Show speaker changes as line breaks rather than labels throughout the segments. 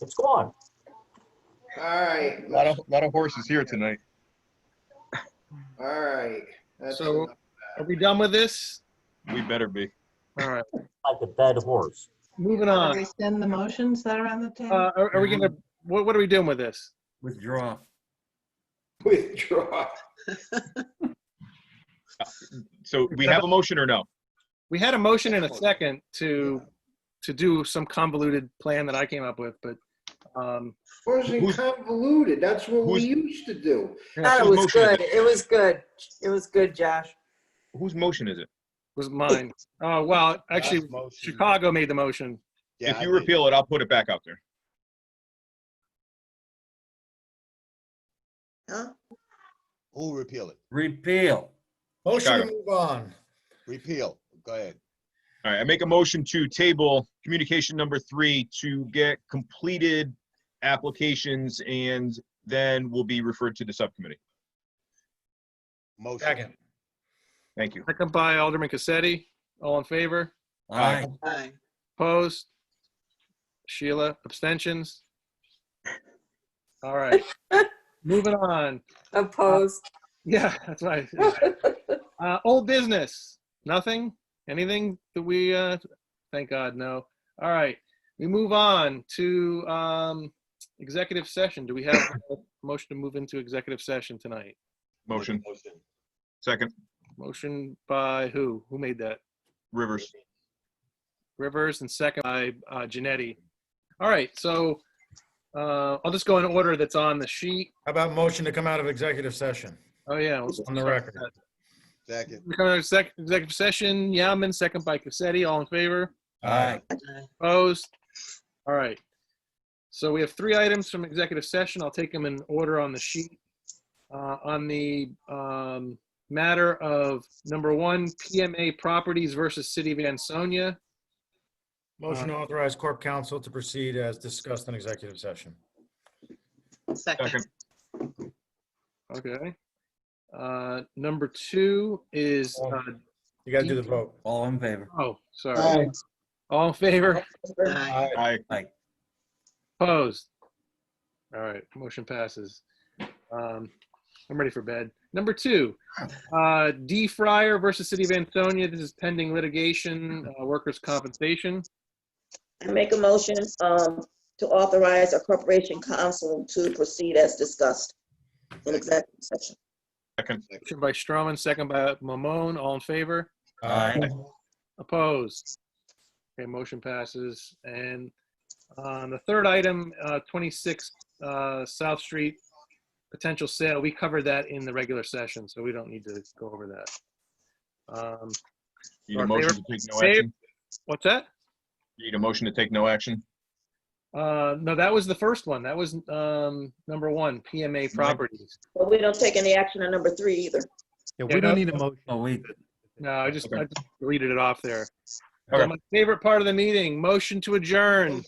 It's gone.
All right,
Lot of, lot of horses here tonight.
all right. That's
So-
enough.
Are we done with this?
We better be.
All right,
Like a dead horse.
moving
Can we
on.
send the motions that are on the
Uh,
table?
are, are we gonna, what, what are we doing with this?
Withdraw.
Withdraw.
So we have a motion or no?
We had a motion and a second to, to do some convoluted plan that I came up with, but, um,
Wasn't
Who's-
convoluted. That's what we
who's-
used to do.
Thought
so
it was
motion is
good. It was good. It was good, Josh.
Whose motion is it?
was mine. Oh, well, actually,
Last motion.
Chicago made the motion.
Yeah,
If
I
you
made-
repeal it, I'll put it back out there.
Huh?
Who repeal it?
Repeal.
Motion
Chicago.
to move on. Repeal, go ahead.
All right, I make a motion to table communication number three to get completed applications and then will be referred to the subcommittee.
Motion.
Second.
Thank you.
Second by Alderman Cassetti. All in favor?
Aye.
Aye.
Opposed? Sheila, abstentions? All right. Moving on. Uh,
Opposed.
Yeah, that's right. Uh, old business, nothing, anything that we, uh, thank God, no. All right, we move on to, um, executive session. Do we have a motion to move into executive session tonight?
Motion. Second,
Motion by who? Who made that?
Rivers.
Rivers and second by uh, Janetti. All right, so uh, I'll just go in order that's on the sheet.
How about motion to come out of executive session?
Oh, yeah. let's-
On the record. Second.
We come out of sec- executive session, Yaman, second by Cassetti, all in favor?
Uh,
Aye.
Opposed? All right. So we have three items from executive session. I'll take them in order on the sheet. Uh, On the um, matter of number one, PMA Properties versus City of Ansonia.
Motion to authorize corp counsel to proceed as discussed in executive session.
Second,
Okay. Uh, Number two is, uh,
You gotta do the vote.
All in favor.
oh, sorry. All in favor?
Aye.
aye.
Opposed? All right, motion passes. Um, I'm ready for bed. Number two, uh, D. Fryer versus City of Ansonia. This is pending litigation, uh, workers' compensation.
I make a uh, motion um, to authorize a corporation counsel to proceed as discussed in executive session.
Second,
Motion by Stroman, second by Mamone. All in favor?
Aye.
Opposed? Okay, motion passes. And on the third item, uh, 26 uh, South Street, potential sale, we covered that in the regular session, so we don't need to go over that. Um,
need a motion to take no action.
What's that?
Need a motion to take no action.
Uh, no, that was the first one. That was um, number one, PMA properties.
But we don't take any action on number three either.
Yeah,
we don't
need a motion.
Oh, wait.
No, I just, I just deleted it off there.
Okay.
My favorite part of the meeting, motion to adjourn.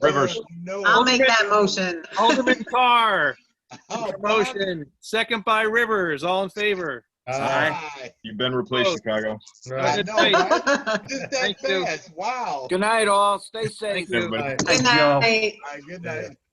Rivers.
I'll make that motion.
Alderman Carr,
Oh,
motion, second by Rivers, all in favor.
Aye.
You've been replaced, Chicago.
Right.
Good night.
Just that
Thank you.
fast, wow.
Good night, all. Stay safe.
Everybody.
Aye.
Good night.
All right, Good
Yeah.
night.